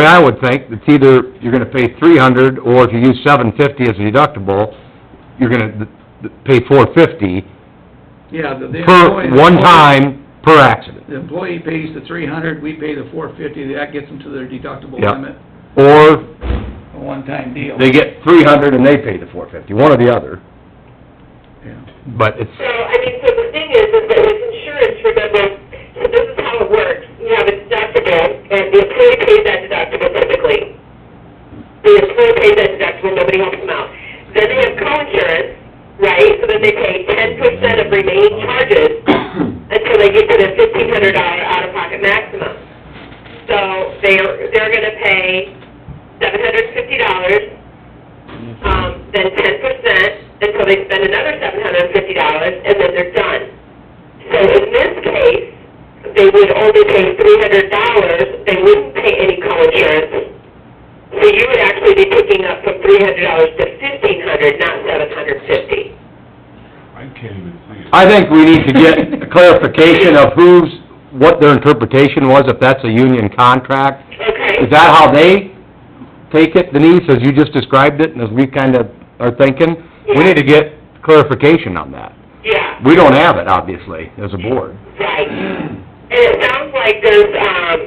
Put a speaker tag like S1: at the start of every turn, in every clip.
S1: way I would think, it's either you're gonna pay three hundred, or if you use seven fifty as a deductible, you're gonna th- th- pay four fifty
S2: Yeah, the... the
S1: per,
S2: employee-
S1: one time, per accident.
S2: The employee pays the three hundred, we pay the four fifty, that gets them to their deductible
S1: Yep.
S2: limit,
S1: Or
S2: a one-time deal.
S1: they get three hundred and they pay the four fifty, one or the other,
S2: Yeah.
S1: but it's,
S3: So, I mean, so the thing is, is that with insurance, remember, this is how it works. You have a deductible, and the employee pays that deductible typically. The employee pays that deductible, nobody helps them out. Then they have co-insurance, right, so then they pay ten percent of remaining charges until they get to the fifteen hundred dollar out-of-pocket maximum. So, they're, they're gonna pay seven hundred fifty dollars um, then ten percent until they spend another seven hundred and fifty dollars, and then they're done. So in this case, they would only pay three hundred dollars, they wouldn't pay any co-insurance. So you would actually be picking up from three hundred dollars to fifteen hundred, not seven hundred fifty.
S4: I can't even see it.
S1: I think we need to get a clarification of who's, what their interpretation was, if that's a union contract.
S3: Okay?
S1: Is that how they take it, Denise, as you just described it, and as we kind of are thinking? We need to get clarification on that.
S3: Yeah,
S1: We don't have it, obviously, as a board.
S3: right. And it sounds like there's, um,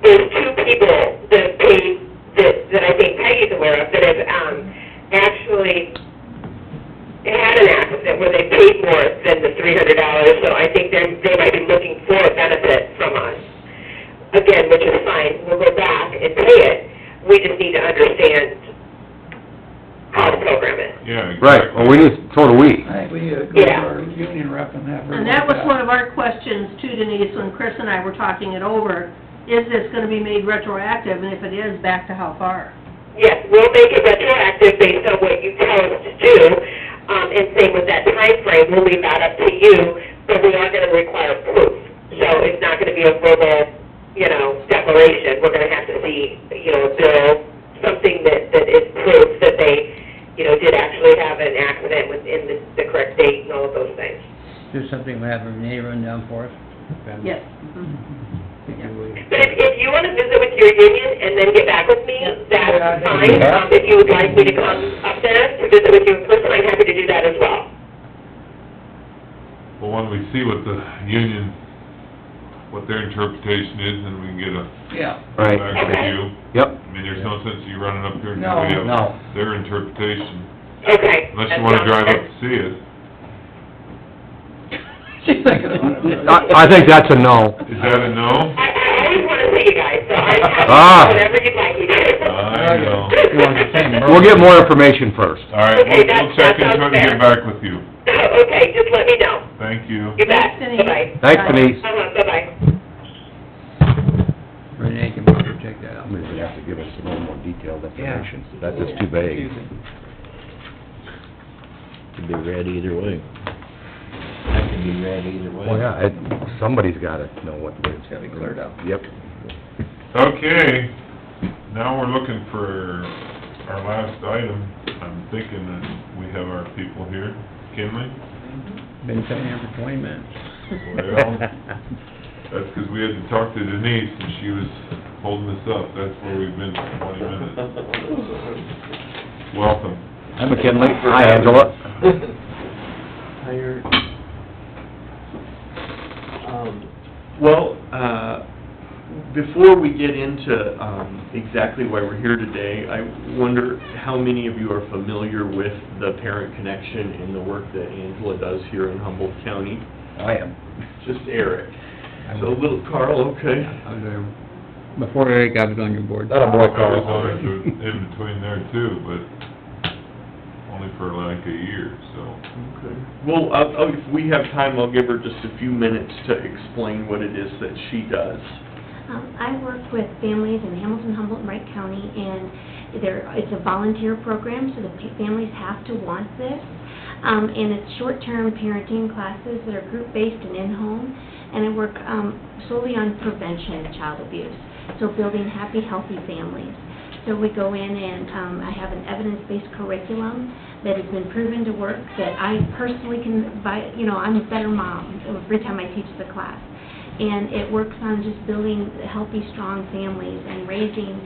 S3: there's two people that pay, that, that I think Peggy's aware of, that have, um, actually had an accident where they paid more than the three hundred dollars, so I think they're, they might be looking for a benefit from us. Again, which is fine, we'll go back and pay it, we just need to understand how to program it.
S4: Yeah.
S1: Right, well, we need, so do we.
S2: I think we uh, go to
S3: Yeah.
S2: our union rep and have her...
S5: And that was one of our questions too, Denise, when Chris and I were talking it over. Is this gonna be made retroactive, and if it is, back to how far?
S3: Yes, we'll make it retroactive based on what you tell us to do, um, and same with that time frame. we'll leave that up to you, but we are gonna require proof. So it's not gonna be a verbal, you know, declaration, we're gonna have to see, you know, a bill, something that, that is proof that they, you know, did actually have an accident within the, the correct date and all of those things.
S6: do something, we have Renee run down for us?
S5: Yes.
S3: But if, if you wanna visit with your union and then get back with me,
S2: Yeah, I think
S3: that's fine.
S2: we have-
S3: Um, If you would like me to come up there to visit with you in person, I'm happy to do that as well.
S4: Well, when we see what the union, what their interpretation is, then we can get a
S2: Yeah,
S1: Right,
S4: back
S3: Okay.
S4: review.
S1: yep,
S4: I mean, there's no sense you running up here and
S2: No,
S4: we have
S1: no.
S4: their interpretation,
S3: Okay.
S4: unless you wanna drive up to see it.
S2: she's thinking about it.
S1: I, I think that's a no.
S4: Is that a no?
S3: I, I always wanna see you guys, so I'm
S1: Ah.
S3: happy to do whatever you'd like me to.
S4: I know.
S6: You want the same, Merle?
S1: We'll get more information first.
S4: All right,
S3: Okay,
S4: we'll,
S3: that-
S4: we'll check
S3: that sounds
S4: into it and
S3: fair.
S4: get back with you.
S3: Okay, just let me know.
S4: Thank you.
S3: You bet.
S5: Thanks, Denise.
S3: Bye-bye.
S1: Thanks, Denise.
S3: Uh-huh, bye-bye.
S6: Renee can probably check that out.
S1: Somebody's gonna have to give us a little more detailed
S6: information.
S1: That's just too vague.
S7: Could be read either way. That could be read either way.
S1: Well, yeah, it, somebody's gotta know what. It's
S6: gotta be cleared up.
S1: Yep.
S4: Okay, now we're looking for our last item. I'm thinking that we have our people here. Kinley?
S6: Been sitting here for twenty minutes.
S4: Well, that's 'cause we had to talk to Denise and she was holding us up. That's where we've been for twenty minutes. Welcome.
S1: Hi McKinley. Hi Angela.
S8: Hired. Um, Well, uh, before we get into um, exactly why we're here today, I wonder how many of you are familiar with the Parent Connection and the work that Angela does here in Humboldt County?
S6: I am.
S8: Just Eric. So little Carl, okay?
S6: I was there before Eric got it on your board.
S1: That a
S4: I
S1: boy call.
S4: was always in between there too, but only for like a year, so.
S8: Okay. Well, I'll- I'll- if we have time, I'll give her just a few minutes to explain what it is that she does.
S9: Um, I work with families in Hamilton, Humboldt, and Wright County, and there, it's a volunteer program, so the pa- families have to want this. Um, and it's short-term parenting classes that are group-based and in-home, and I work, um, solely on prevention of child abuse, so building happy, healthy families. So we go in and, um, I have an evidence-based curriculum that has been proven to work, that I personally can, buy, you know, I'm a better mom every time I teach the class. And it works on just building healthy, strong families and raising